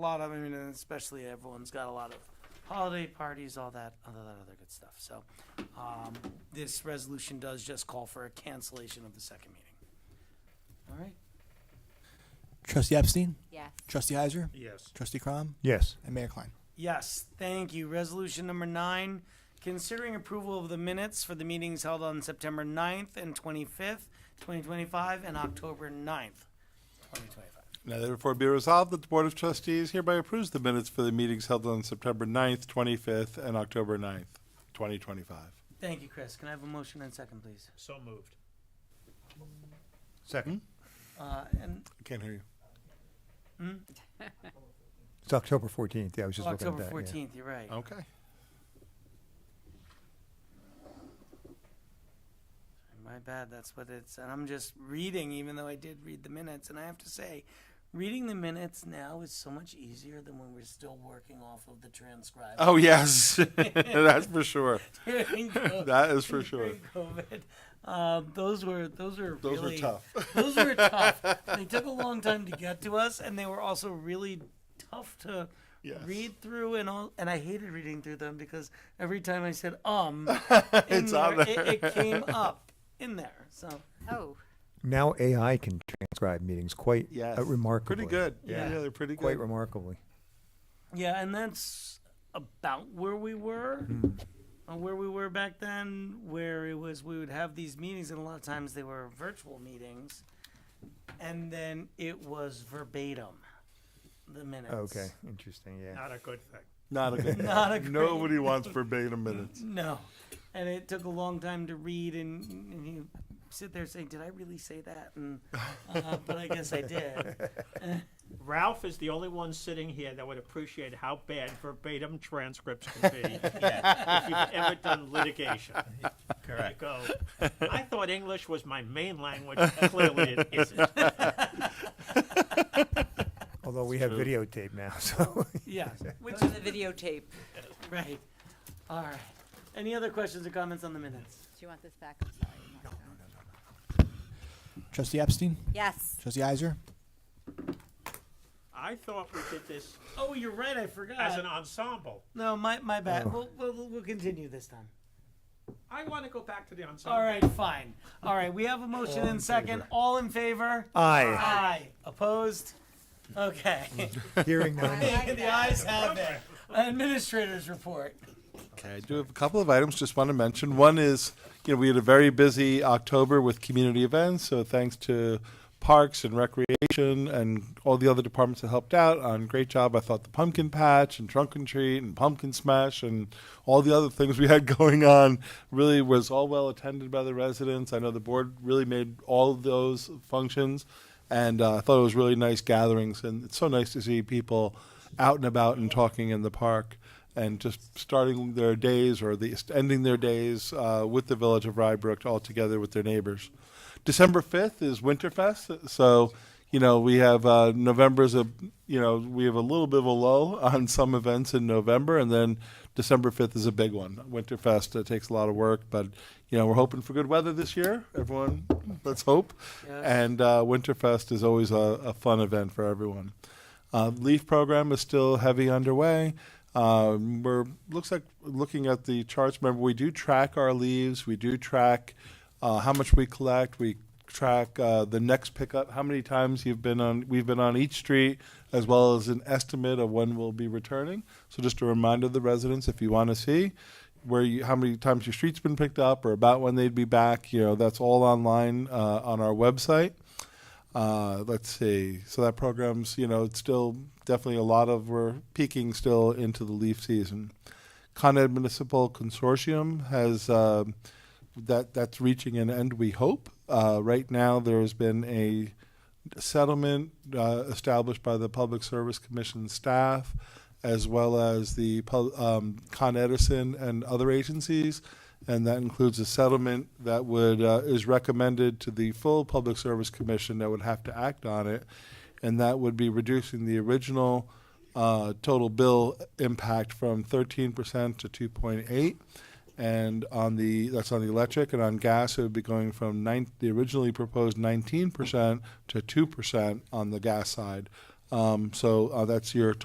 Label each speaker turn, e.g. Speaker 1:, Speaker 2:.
Speaker 1: a lot of, I mean, and especially everyone's got a lot of holiday parties, all that, all that other good stuff. So, um, this resolution does just call for a cancellation of the second meeting. All right.
Speaker 2: Trustee Epstein,
Speaker 3: Yes.
Speaker 2: Trustee Heiser,
Speaker 4: Yes.
Speaker 2: Trustee Crom,
Speaker 4: Yes.
Speaker 2: and Mayor Klein.
Speaker 1: Yes, thank you. Resolution number nine, considering approval of the minutes for the meetings held on September 9th and twenty-fifth, twenty twenty-five, and October 9th, twenty twenty-five.
Speaker 5: Now therefore be resolved that the Board of Trustees hereby approves the minutes for the meetings held on September 9th, 25th, and October 9th, 2025.
Speaker 1: Thank you, Chris. Can I have a motion and second, please?
Speaker 4: So moved. Second?
Speaker 1: Uh, and
Speaker 5: I Hmm? can't hear you.
Speaker 4: It's October 14th. Yeah, I was just looking at
Speaker 1: October
Speaker 4: that. yeah.
Speaker 1: fourteenth, you're right.
Speaker 5: Okay.
Speaker 1: My bad. That's what it's. And I'm just reading, even though I did read the minutes. And I have to say, reading the minutes now is so much easier than when we're still working off of the transcribe.
Speaker 5: Oh, yes. That's for sure.
Speaker 1: during COVID.
Speaker 5: That is for sure.
Speaker 1: During COVID. Um, those were those were
Speaker 5: Those were
Speaker 1: really,
Speaker 5: tough.
Speaker 1: those were tough. They took a long time to get to us, and they were also really tough to
Speaker 5: Yes.
Speaker 1: read through. And all, and I hated reading through them because every time I said um, in
Speaker 5: It's on
Speaker 1: there,
Speaker 5: there.
Speaker 1: It, it came up in there. So
Speaker 3: Oh,
Speaker 4: Now AI can transcribe meetings quite
Speaker 5: Yes.
Speaker 4: uh, remarkably.
Speaker 5: Pretty good.
Speaker 1: Yeah.
Speaker 5: Yeah, they're pretty
Speaker 4: Quite
Speaker 5: good.
Speaker 4: remarkably.
Speaker 1: yeah, and that's about where we were. uh, Where we were back then, where it was, we would have these meetings, and a lot of times they were virtual meetings, and then it was verbatim, the minutes.
Speaker 4: Oh, Okay, interesting. Yeah.
Speaker 6: Not a good thing.
Speaker 5: Not a good.
Speaker 1: Not a great-
Speaker 5: Nobody wants verbatim minutes.
Speaker 1: No. And it took a long time to read, and, and you sit there saying, Did I really say that? And, uh, but I guess I did.
Speaker 6: Ralph is the only one sitting here that would appreciate how bad verbatim transcripts can be if you've ever done litigation. Correct. Go. I thought English was my main language. Clearly, it isn't.
Speaker 4: Although we have videotape now, so
Speaker 1: Yeah. Which,
Speaker 3: to the videotape.
Speaker 1: right. All right. Any other questions or comments on the minutes?
Speaker 3: Do you want this back? I'm sorry. I'm not sure.
Speaker 2: Trustee Epstein,
Speaker 3: Yes.
Speaker 2: Trustee Heiser,
Speaker 6: I thought we did this
Speaker 1: Oh, you're right. I forgot.
Speaker 6: as an ensemble.
Speaker 1: no, my, my bad. We'll, we'll, we'll continue this time.
Speaker 6: I want to go back to the ensemble.
Speaker 1: All right, fine. All right. We have a motion and second. All in favor?
Speaker 4: aye.
Speaker 1: Aye. Opposed? Okay.
Speaker 4: Hearing none.
Speaker 3: like
Speaker 1: the ayes have it. Administrators report.
Speaker 5: Okay, I do have a couple of items just want to mention. One is, you know, we had a very busy October with community events, so thanks to Parks and Recreation and all the other departments that helped out on great job. I thought the pumpkin patch and trunk and treat and pumpkin smash and all the other things we had going on really was all well attended by the residents. I know the board really made all of those functions and uh, I thought it was really nice gatherings and it's so nice to see people out and about and talking in the park and just starting their days or the ending their days uh, with the village of Rybrook all together with their neighbors. December fifth is Winterfest, so you know we have uh, November's a you know we have a little bit of a lull on some events in November, and then December fifth is a big one. Winterfest uh, takes a lot of work, but you know we're hoping for good weather this year. Everyone, let's hope.
Speaker 1: Yes.
Speaker 5: And uh, Winterfest is always a, a fun event for everyone. Uh, Leaf program is still heavy underway. Um, we're looks like looking at the charts. Remember, we do track our leaves. We do track uh, how much we collect. We track uh, the next pickup. How many times you've been on? We've been on each street, as well as an estimate of when we'll be returning. So just a reminder to the residents, if you want to see where you, how many times your street's been picked up, or about when they'd be back. You know, that's all online uh, on our website. Uh, let's see. So that program's, you know, it's still definitely a lot of, we're peaking still into the leaf season. Con Ed Municipal Consortium has, uh, that, that's reaching an end, we hope. Uh, right now, there has been a settlement uh, established by the Public Service Commission staff, as well as the pub- um, Con Edison and other agencies, and that includes a settlement that would uh, is recommended to the full Public Service Commission that would have to act on it, and that would be reducing the original uh, total bill impact from 13% to 2.8 and on the that's on the electric and on gas it would be going from nine, the originally proposed 19% to 2% on the gas side um, so uh, that's your